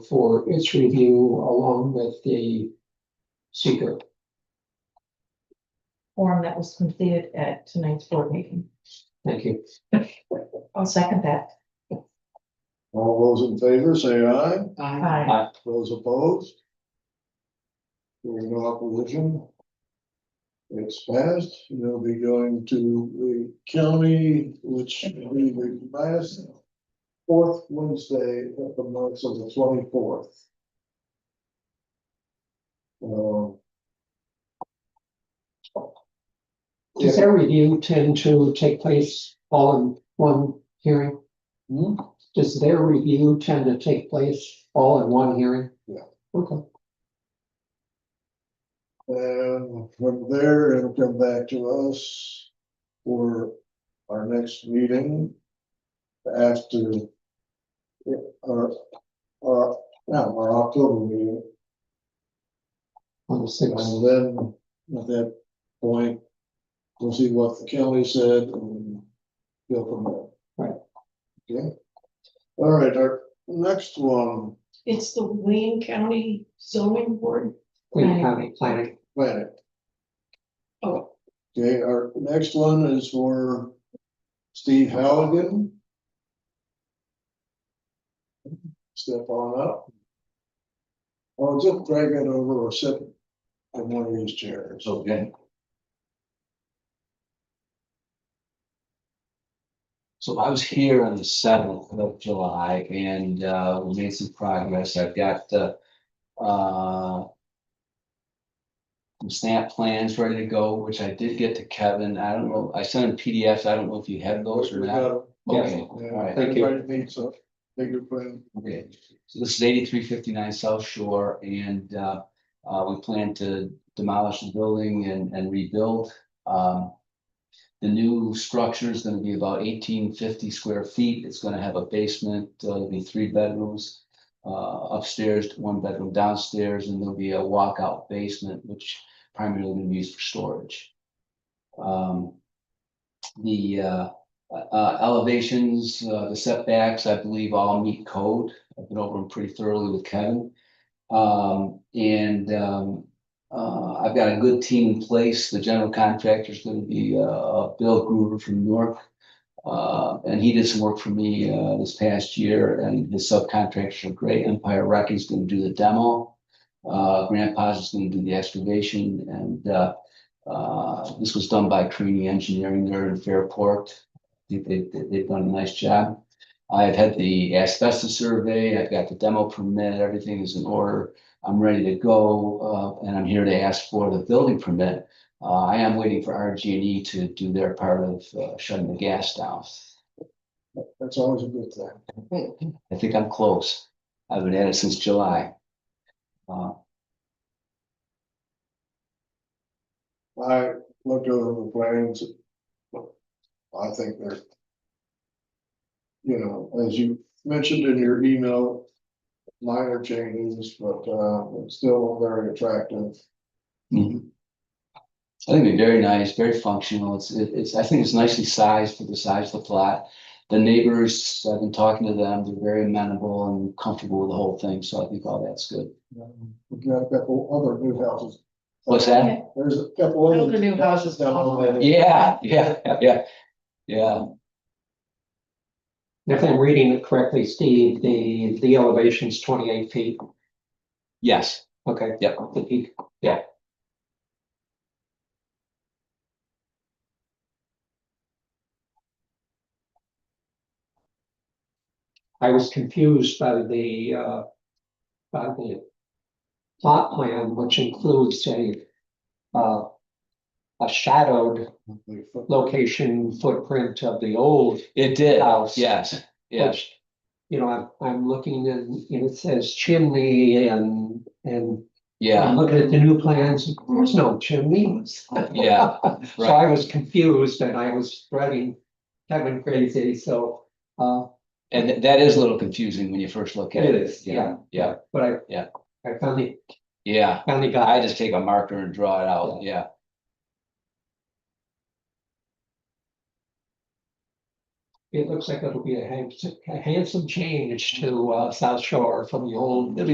for its review along with the seeker. form that was completed at tonight's board meeting. Thank you. I'll second that. All those in favor, say aye. Aye. Those opposed? Hearing no opposition. It's passed. We'll be going to the county, which will be the last fourth Wednesday of the month, so the twenty-fourth. Um, Does that review tend to take place all in one hearing? Hmm? Does their review tend to take place all in one hearing? Yeah. Okay, And from there, it'll come back to us for our next meeting after our, our, no, our October meeting. on the sixth. And then at that point, we'll see what the county said and go from there. Right. Okay. All right, our next one, It's the Wayne County zoning board. We have a planning. planning. Oh, Okay, our next one is for Steve Halligan. Step on up. I'll just drag it over or sit in one of these chairs. Okay. So I was here on the seventh of July and uh we made some progress. I've got the uh. Some snap plans ready to go, which I did get to Kevin. I don't know, I sent him PDFs. I don't know if you have those or not. Okay, all right. Thank you. Everybody needs a bigger plan. Okay, so this is eighty-three fifty-nine South Shore and uh, uh, we plan to demolish the building and, and rebuild. Um, the new structure is gonna be about eighteen fifty square feet. It's gonna have a basement, uh, there'll be three bedrooms. Uh, upstairs, one bedroom downstairs, and there'll be a walkout basement, which primarily gonna be used for storage. Um, the uh, uh, elevations, uh, the setbacks, I believe all meet code. I've been over them pretty thoroughly with Kevin. Um, and, um, uh, I've got a good team in place. The general contractor is gonna be, uh, Bill Gruber from Newark. Uh, and he did some work for me, uh, this past year and his subcontractors are great. Empire Records is gonna do the demo. Uh, Grandpa's is gonna do the excavation and, uh, uh, this was done by Creaney Engineering there in Fairport think they, they- they've done a nice job. I've had the asbestos survey, I've got the demo permit, everything is in order. I'm ready to go, uh, and I'm here to ask for the building permit. Uh, I am waiting for RG&E E to do their part of uh, shutting the gas down. That's always a good thing. I think I'm close. I've been at it since July. Uh, I looked over the plans. I think they're. You know, as you mentioned in your email. Minor changes, but uh, it's still very attractive. mhm. I think it'd be very nice, very functional. It's, it- it's, I think it's nicely sized for the size of the plot. the neighbors, I've been talking to them, they're very amenable and comfortable with the whole thing, so I think all that's good. Um, We've got a couple other new houses. What's that? There's a couple other. Other new houses down the way. Yeah, yeah, yeah, yeah. If I'm reading it correctly, Steve, the, the elevation's twenty-eight feet. Yes, Okay. Yep. The peak. I was confused by the, uh, by the plot plan, which includes a, uh, a shadowed location footprint of the old it did. house. Yes, yes. which, You know, I'm, I'm looking and, you know, it says chimney and, and I'm Yeah, looking at the new plans, there's no chimneys. yeah, So I was confused and I was spreading, Kevin crazy, so, uh, and th- that is a little confusing when you first look at It it. is, yeah. Yeah, but I. Yeah. I finally, yeah. finally got. I it. just take a marker and draw it out, yeah. it looks like it'll be a handsome, a handsome change to, uh, South Shore from the old